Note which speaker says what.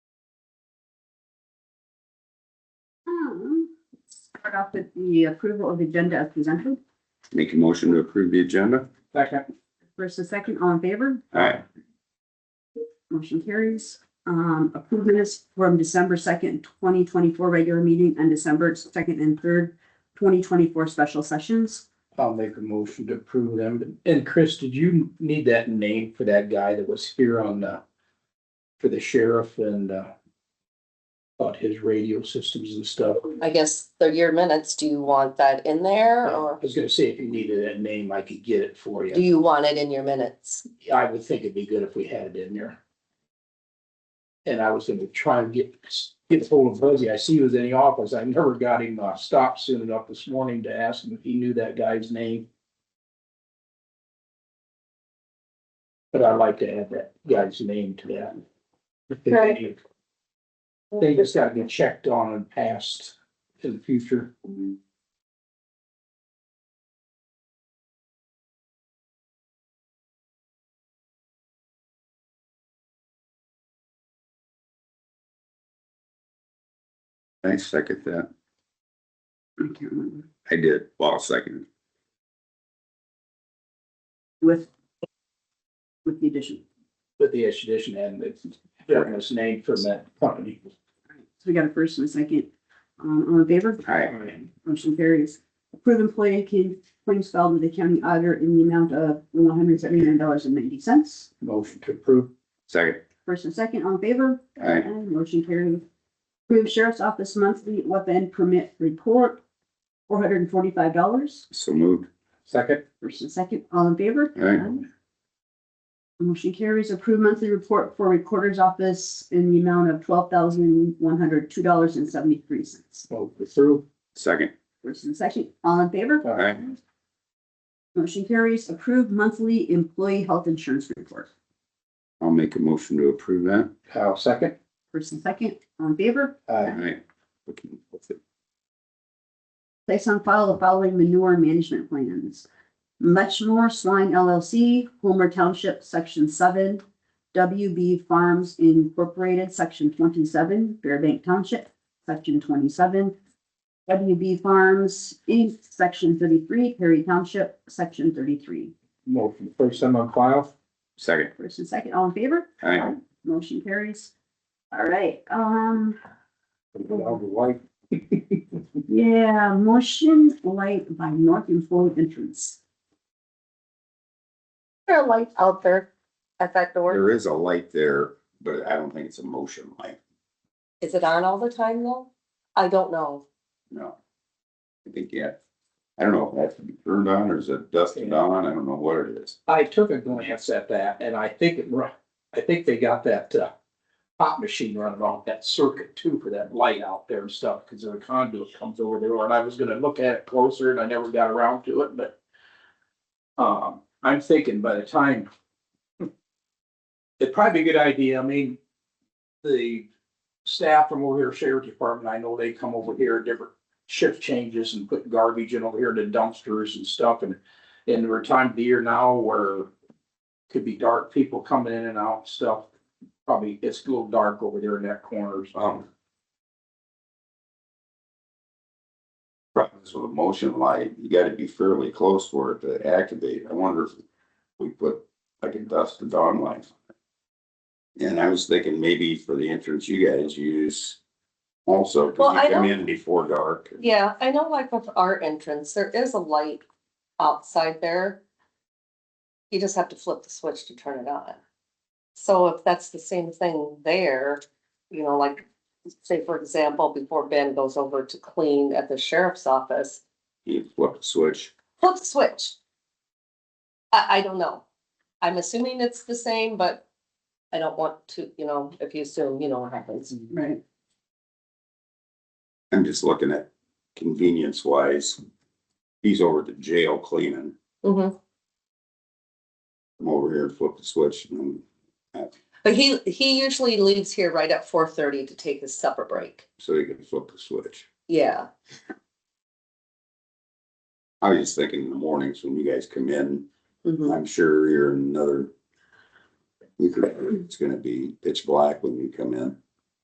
Speaker 1: start off with the approval of the agenda as presented.
Speaker 2: Make a motion to approve the agenda.
Speaker 3: Second.
Speaker 1: First and second, all in favor?
Speaker 2: All right,
Speaker 1: Motion carries. Um, approve minutes from December second, twenty twenty-four regular meeting and December second and third, twenty twenty-four special sessions.
Speaker 3: I'll make a motion to approve them. And Chris, did you need that name for that guy that was here on the, for the sheriff and, uh, about his radio systems and stuff?
Speaker 4: I guess they're your minutes. Do you want that in there
Speaker 3: I
Speaker 4: or
Speaker 3: was gonna say, if you needed that name, I could get it for
Speaker 4: do
Speaker 3: you.
Speaker 4: you want it in your minutes?
Speaker 3: I would think it'd be good if we had it in there. And I was gonna try and get, get hold of Buzzy. I see he was in the office. I never got him, uh, stopped soon enough this morning to ask him if he knew that guy's name. But I'd like to add that guy's name to that.
Speaker 5: Right.
Speaker 3: They just gotta get checked on and passed in the future.
Speaker 2: I second that.
Speaker 1: I can't remember.
Speaker 2: I did. Well, second.
Speaker 1: With with the addition.
Speaker 3: with the extradition and the governor's name from that company.
Speaker 1: All right, So we got a first and a second. Um, all in favor?
Speaker 2: All right,
Speaker 3: I'll
Speaker 1: Motion carries. Approve employee can claims filed with the county auditor in the amount of one hundred seventy-nine dollars and ninety cents.
Speaker 3: Motion to approve.
Speaker 2: second.
Speaker 1: First and second, all in favor?
Speaker 2: Aye.
Speaker 1: And Motion carried. Approve Sheriff's Office monthly weapon permit report, four hundred and forty-five dollars.
Speaker 2: So moved.
Speaker 3: Second.
Speaker 1: First and second, all in favor?
Speaker 2: All right,
Speaker 1: Aye. Motion carries. Approve monthly report for Recorder's Office in the amount of twelve thousand one hundred two dollars and seventy-three cents.
Speaker 3: Vote to approve.
Speaker 2: second.
Speaker 1: First and second, all in favor?
Speaker 2: All right,
Speaker 1: Motion carries. Approve monthly employee health insurance report.
Speaker 2: I'll make a motion to approve that.
Speaker 3: Kyle, second. Uh,
Speaker 1: First and second, all in favor?
Speaker 2: All
Speaker 3: Aye.
Speaker 2: right. Okay, that's it.
Speaker 1: Place on file the following manure management plans. Muchmore Swine LLC, Homer Township, Section seven, WB Farms Incorporated, Section twenty-seven, Fairbank Township, Section twenty-seven, WB Farms Inc., Section thirty-three, Perry Township, Section thirty-three.
Speaker 3: Motion first time on file.
Speaker 2: Second.
Speaker 1: First and second, all in favor?
Speaker 2: All right,
Speaker 1: Motion carries. All right, um,
Speaker 3: I'll be white.
Speaker 1: yeah, motion light by North and Floyd Entrance.
Speaker 4: Is There a light out there at that door.
Speaker 2: there is a light there, but I don't think it's a motion light.
Speaker 4: Is it on all the time though? I don't know.
Speaker 2: No. I think, yeah. I don't know if that's turned on or is it dusted on? I don't know what it is.
Speaker 3: I took a glance at that and I think it, ru- I think they got that, uh, pop machine running off that circuit too for that light out there and stuff, because the conduit comes over there and I was gonna look at it closer and I never got around to it, but um, I'm thinking by the time it'd probably be a good idea. I mean, the staff from over here, sheriff department, I know they come over here, different shift changes and put garbage in over here to dumpsters and stuff and and we're time of the year now where could be dark, people coming in and out and stuff. Probably it's a little dark over there in that corner. so-
Speaker 2: Um. Problem is with a motion light, you gotta be fairly close for it to activate. I wonder if we put like a dusk to dawn light. on it. And I was thinking maybe for the entrance, you guys use also,
Speaker 4: Well,
Speaker 2: cause
Speaker 4: I
Speaker 2: you come
Speaker 4: don't-
Speaker 2: in before dark.
Speaker 4: Yeah, I know like with our entrance, there is a light outside there. You just have to flip the switch to turn it on. So if that's the same thing there, you know, like say for example, before Ben goes over to clean at the sheriff's office,
Speaker 2: You flip the switch.
Speaker 4: flip the switch. I, I don't know. I'm assuming it's the same, but I don't want to, you know, if you assume, you know what happens.
Speaker 1: Right.
Speaker 2: I'm just looking at convenience wise. He's over at the jail cleaning.
Speaker 4: Mhm.
Speaker 2: I'm over here, flip the switch and
Speaker 4: But he, he usually leaves here right at four thirty to take his supper break.
Speaker 2: so he can flip the switch.
Speaker 4: Yeah,
Speaker 2: I was just thinking in the mornings when you guys come in,
Speaker 4: mhm,
Speaker 2: I'm sure you're in another. You could, it's gonna be pitch black when you come in.